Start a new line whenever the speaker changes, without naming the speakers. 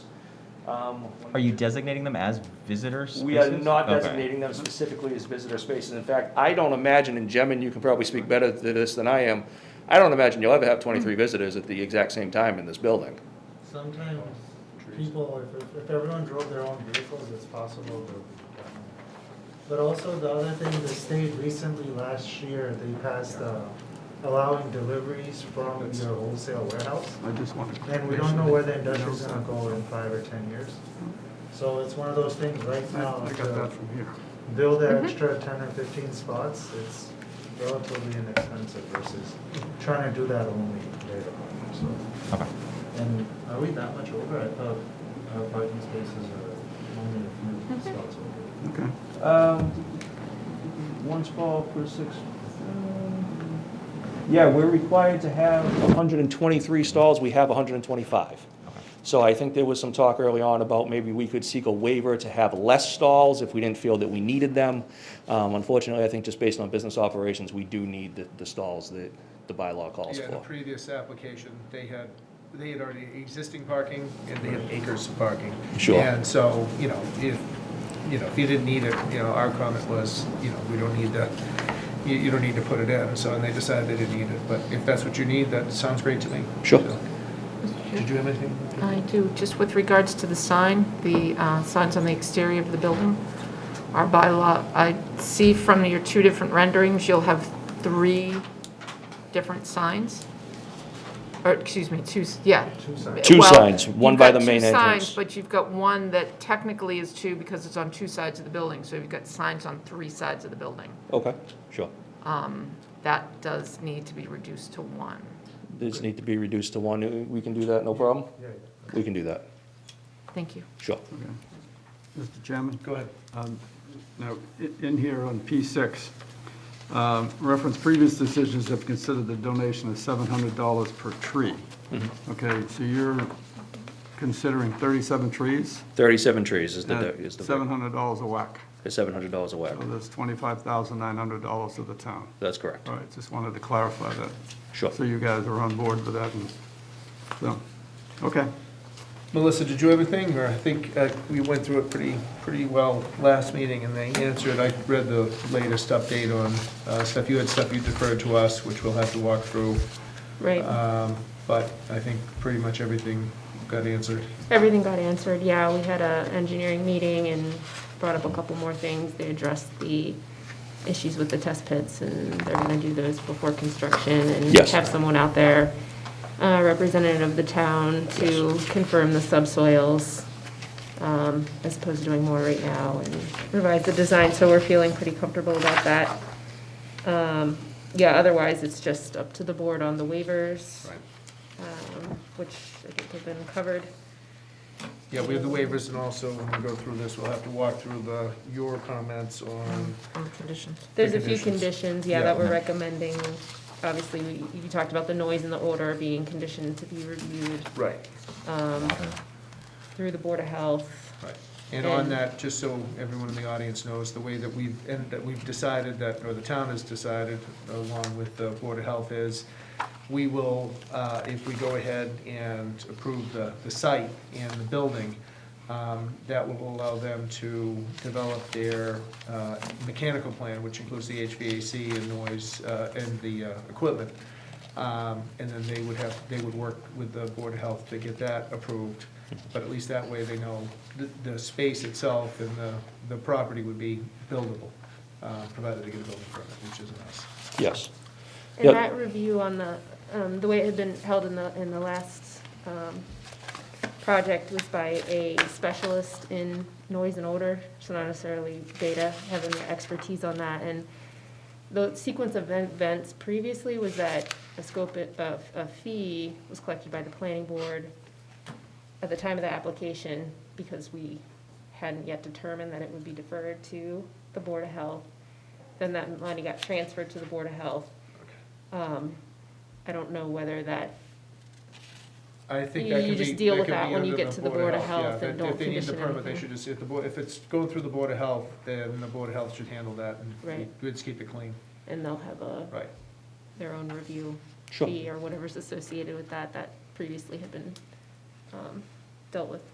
Um,
Are you designating them as visitor spaces?
We are not
Okay.
designating them specifically as visitor spaces. In fact, I don't imagine, and Jem, and you can probably speak better to this than I am, I don't imagine you'll ever have twenty-three
Hmm.
visitors at the exact same time in this building.
Sometimes people, if, if- if everyone drove their own vehicles, it's possible to. But also the other thing, the state recently, last year, they passed uh, allowing deliveries from your wholesale warehouse.
I just want to.
And we don't know where the industrial's gonna go in five or ten years. So it's one of those things right
I
now
I got
to
that from here.
build an extra ten or fifteen spots, it's relatively inexpensive versus trying to do that only later on, so.
Okay.
And are we that much over? I thought our parking spaces are only a few spots over.
Okay.
Um, one spot per six. um, Yeah, we're required to have hundred and twenty-three stalls, we have hundred and twenty-five. So I think there was some talk early on about maybe we could seek a waiver to have less stalls if we didn't feel that we needed them. Um, unfortunately, I think just based on business operations, we do need the, the stalls that the bylaw calls
Yeah, in the
for.
previous application, they had, they had already existing parking and they had acres of parking.
Sure.
And so, you know, if, you know, if you didn't need it, you know, our comment was, you know, we don't need the, you, you don't need to put it in, so, and they decided they didn't need it, but if that's what you need, that sounds great to me.
Sure.
So, Did you have anything?
I do, just with regards to the sign, the uh, signs on the exterior of the building, our bylaw, I see from your two different renderings, you'll have three different signs, or, excuse me, two, s- yeah.
Two signs.
Two
Well,
signs, one
you've
by
got
the main
two
entrance.
signs, But you've got one that technically is two because it's on two sides of the building, so you've got signs on three sides of the building.
Okay, sure.
That does need to be reduced to one.
These need to be reduced to one, we can do that, no problem?
Yeah, yeah.
We can do that,
Thank you.
sure.
Okay. Mr. Chairman?
Go ahead.
Um, Now, i- in here on P6, um, reference previous decisions have considered the donation of $700 per tree.
Mm-hmm.
Okay, so you're considering 37 trees?
Thirty-seven trees is the,
at
is the,
$700 a whack.
is seven hundred dollars a whack.
So that's $25,900 to the town.
That's correct.
All right, just wanted to clarify that.
Sure.
So you guys are on board with that, and, so, okay.
Melissa, did you have anything, or I think uh, we went through it pretty, pretty well last meeting, and they answered, I read the latest update on uh, stuff, you had stuff you deferred to us, which we'll have to walk through.
Right.
Um, But I think pretty much everything got answered.
Everything got answered, yeah, we had a engineering meeting and brought up a couple more things, they addressed the issues with the test pits, and they're gonna do those before construction, and
Yes.
have someone out there, uh, representative of the town to confirm the subsoils, um, as opposed to doing more right now, and revise the design, so we're feeling pretty comfortable about that. Um, yeah, otherwise, it's just up to the board on the waivers, um, which I think have been covered.
Yeah, we have the waivers, and also when we go through this, we'll have to walk through the, your comments on,
On the conditions.
There's a few
conditions.
conditions, yeah,
Yeah.
that we're recommending. Obviously, we- you talked about the noise and the odor being conditioned to be reviewed
right,
um, through the Board of Health.
Right, and on
And-
that, just so everyone in the audience knows, the way that we've, and that we've decided that, or the town has decided, along with the Board of Health, is we will, uh, if we go ahead and approve the, the site and the building, um, that will allow them to develop their uh, mechanical plan, which includes the HVAC and noise, uh, and the uh, equipment. Um, And then they would have, they would work with the Board of Health to get that approved. But at least that way they know the, the space itself and the, the property would be buildable, uh, provided they get a building permit, which isn't us.
Yes.
And
Yeah.
that review on the, um, the way it had been held in the, in the last um, project was by a specialist in noise and odor, so not necessarily data, having the expertise on that. And the sequence of events previously was that a scope of, a fee was collected by the planning board at the time of the application, because we hadn't yet determined that it would be deferred to the Board of Health. Then that money got transferred to the Board of Health. Um, I don't know whether that,
I think
You-
that
you
could be.
just deal with
could
that
be
when you
under
get to the Board of
yeah,
Health and
that
don't
If they need
condition
the permit, they
anything.
should just, if the, Board- if it's going through the Board of Health, then the Board of Health should handle that and
Right.
we'd just keep it clean,
and they'll have a,
right?
their own review
Sure.
fee or whatever's associated with that, that previously had been um, dealt with